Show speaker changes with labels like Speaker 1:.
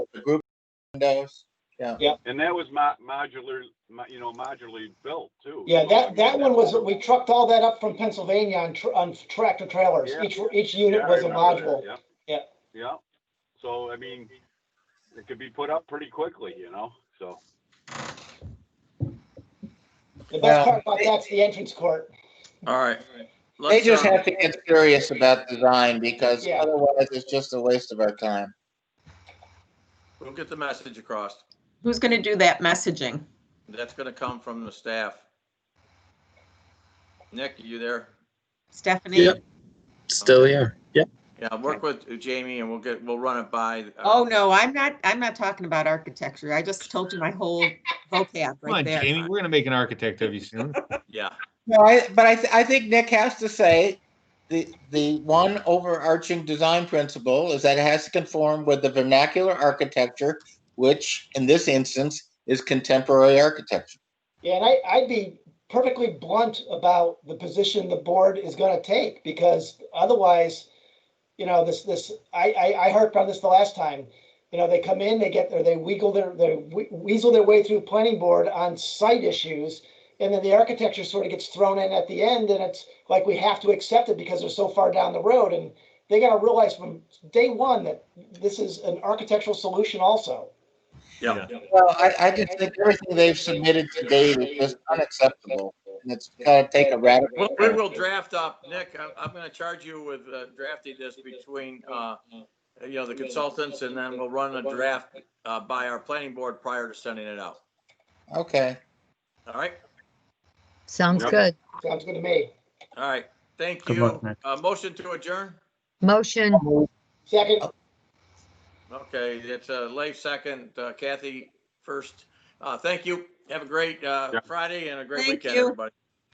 Speaker 1: windows. Yeah.
Speaker 2: And that was mo- modular, mo- you know, modularly built too.
Speaker 3: Yeah,
Speaker 2: So, I mean,
Speaker 3: that, that one was, we trucked all that up from Pennsylvania on, tr- on tractor trailers.
Speaker 2: Yeah.
Speaker 3: Each, each
Speaker 2: Yeah,
Speaker 3: unit
Speaker 2: I
Speaker 3: was a
Speaker 2: remember
Speaker 3: module.
Speaker 2: that,
Speaker 3: Yeah.
Speaker 2: Yeah, yeah. So, I mean, it could be put up pretty quickly, you know, so.
Speaker 3: The
Speaker 1: Yeah.
Speaker 3: best part about that's the entrance court.
Speaker 4: All right.
Speaker 1: They
Speaker 4: Let's,
Speaker 1: just
Speaker 4: uh,
Speaker 1: have to get serious about design because
Speaker 3: Yeah.
Speaker 1: otherwise it's just a waste of our time.
Speaker 4: We'll get the message across.
Speaker 5: Who's going to do that messaging?
Speaker 4: That's gonna come from the staff. Nick, you there?
Speaker 5: Stephanie?
Speaker 6: Yep. Still here. Yep.
Speaker 4: Yeah, work with Jamie and we'll get, we'll run it by. uh,
Speaker 5: Oh, no, I'm not, I'm not talking about architecture. I just told you my whole vocab
Speaker 7: Come
Speaker 5: right
Speaker 7: on,
Speaker 5: there.
Speaker 7: Jamie, we're gonna make an architect of you soon.
Speaker 4: Yeah,
Speaker 1: No, I, but I, th- I think Nick has to say the, the one overarching design principle is that it has to conform with the vernacular architecture, which in this instance is contemporary architecture.
Speaker 3: Yeah, and I, I'd be perfectly blunt about the position the board is gonna take, because otherwise, you know, this, this, I, I, I harped on this the last time. You know, they come in, they get, there, they wiggle their, they we- weasel their way through planning board on site issues, and then the architecture sort of gets thrown in at the end, and it's like we have to accept it because they're so far down the road, and they gotta realize from day one that this is an architectural solution also.
Speaker 4: yeah.
Speaker 1: Well, I, I just think everything they've submitted to date is just unacceptable and it's gotta take a
Speaker 4: Well,
Speaker 1: radical.
Speaker 4: we will draft up, Nick, I'm, I'm gonna charge you with uh, drafting this between, uh, you know, the consultants and then we'll run a draft, uh, by our planning board prior to sending it out.
Speaker 1: Okay.
Speaker 4: All right?
Speaker 8: Sounds
Speaker 2: Yep.
Speaker 8: good.
Speaker 3: Sounds good to me.
Speaker 4: All right, thank
Speaker 6: Good
Speaker 4: you.
Speaker 6: luck, Nick.
Speaker 4: Uh, motion to adjourn?
Speaker 8: Motion,
Speaker 3: Second,
Speaker 4: Okay, it's uh Leif second, uh, Kathy first. Uh, thank you. Have a great, uh,
Speaker 2: Yeah.
Speaker 4: Friday and a great
Speaker 5: Thank
Speaker 4: weekend,
Speaker 5: you.
Speaker 4: everybody.